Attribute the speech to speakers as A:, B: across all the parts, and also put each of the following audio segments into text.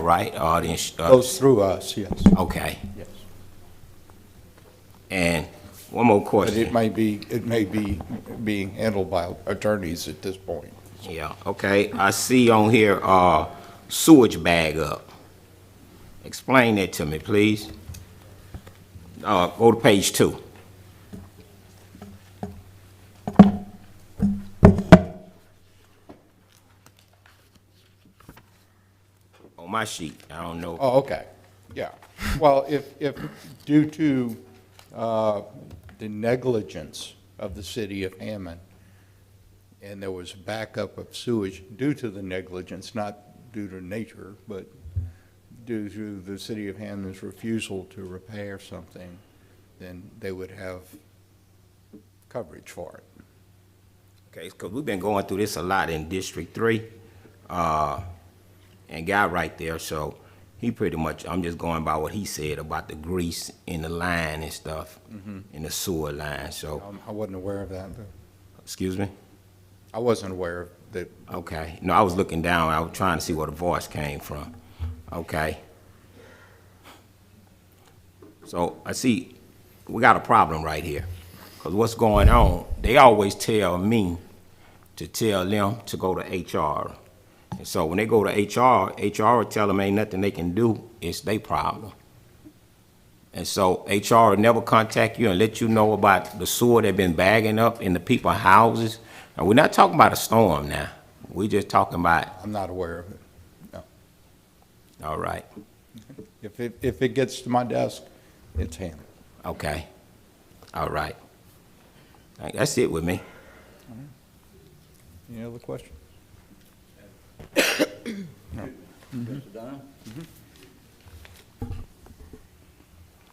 A: right? All the ins- uh,
B: Goes through us, yes,
A: Okay.
B: yes.
A: And one more
B: But it
A: question.
B: may be, it may be being handled by attorneys at this point.
A: Yeah, okay. I see on here, uh, sewage bag up. Explain that to me, please. Uh, go to page two. On my sheet, I don't know.
B: Oh, okay, yeah. Well, if, if due to uh, the negligence of the city of Hammond, and there was backup of sewage due to the negligence, not due to nature, but due to the city of Hammond's refusal to repair something, then they would have coverage for it.
A: Okay, because we've been going through this a lot in District Three, uh, and guy right there, so he pretty much, I'm just going by what he said about the grease in the line and stuff, in the sewer line, so,
B: Um, I wasn't aware of that, but
A: excuse me?
B: I wasn't aware of that.
A: Okay, no, I was looking down, I was trying to see where the voice came from, okay? So, I see, we got a problem right here, because what's going on, they always tell me to tell them to go to HR. And so, when they go to HR, HR will tell them ain't nothing they can do, it's their problem. And so HR will never contact you and let you know about the sewer they've been bagging up in the people's houses. And we're not talking about a storm now. We're just talking about,
B: I'm not aware of it.
A: all right,
B: If it, if it gets to my desk, it's handled.
A: okay, all right. All right, That's it with me.
B: Any other questions?
C: Mm-hmm.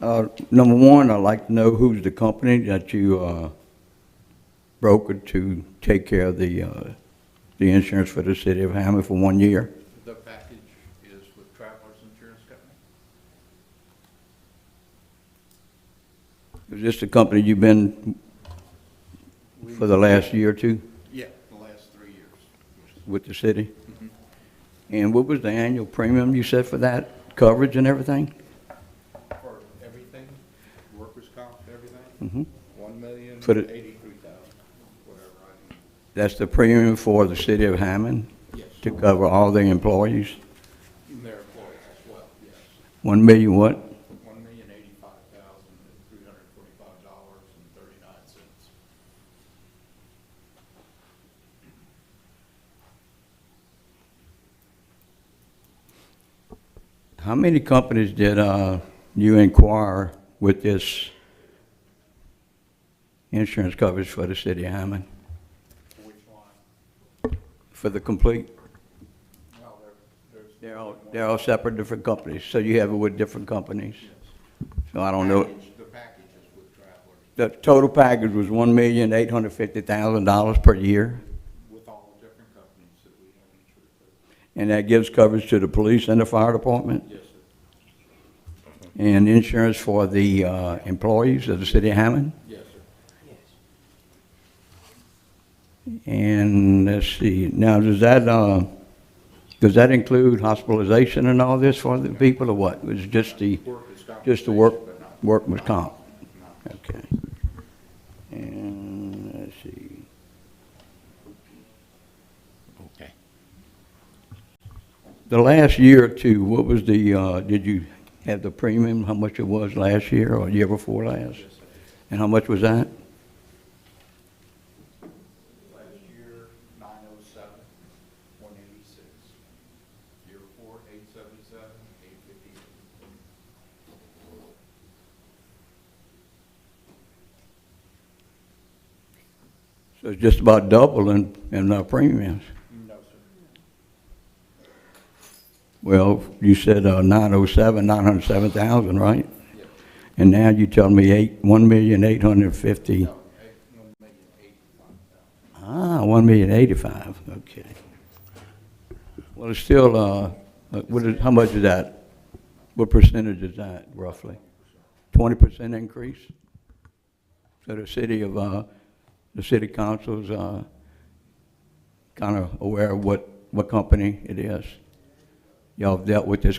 C: Uh, Number one, I'd like to know who's the company that you uh, brokered to take care of the, uh, the insurance for the city of Hammond for one year?
B: The package is with Travelers Insurance Company?
C: Is this the company you've been for the last year or two
B: Yeah, the last three years.
C: with the city? And what was the annual premium you said for that, coverage and everything?
B: For everything, workers' comp, everything,
C: Mhm.
B: one million,
C: Put it-
B: eighty-three thousand, whatever, I mean,
C: That's the premium for the city of Hammond to
B: yes,
C: cover all the employees?
B: and their employees as well, yes.
C: One million what?
B: One million eighty-five thousand, three hundred and forty-five dollars and thirty-nine cents.
C: How many companies did uh, you inquire with this insurance coverage for the city of Hammond,
B: Which line?
C: for the complete?
B: Well, there, there's.
C: They're all, they're all separate, different companies, so you have it with different companies? So I don't know,
B: Package- The package is with Travelers,
C: the total package was one million, eight hundred fifty thousand dollars per year,
B: with all the different companies that we have insured with.
C: and that gives coverage to the police and the fire department,
B: Yes, sir.
C: and insurance for the uh, employees of the city of Hammond?
B: Yes, sir.
C: And let's see, now, does that, uh, does that include hospitalization and all this for the people or what? Was it just the,
B: Workers'
C: just the work,
B: compensation, but
C: work was comp? Okay. And let's see,
A: Okay.
C: the last year or two, what was the, uh, did you have the premium, how much it was last year or year before last? And how much was that?
B: not- Last year, nine oh seven, one eighty-six. Year four, eight seventy-seven, eight fifty-eight.
C: So it's just about double in, in our premiums.
B: No, sir.
C: Well, you said uh, 907, 907,000, right?
B: Yes.
C: And now you tell me eight, 1,850.
B: No, eight, one million, eighty-five thousand.
C: Ah, 1,085, okay. Well, it's still, uh, uh, what is, how much is that? What percentage is that roughly? 20% increase? So the city of, uh, the city council's, uh, kind of aware of what, what company it is. Y'all have dealt with this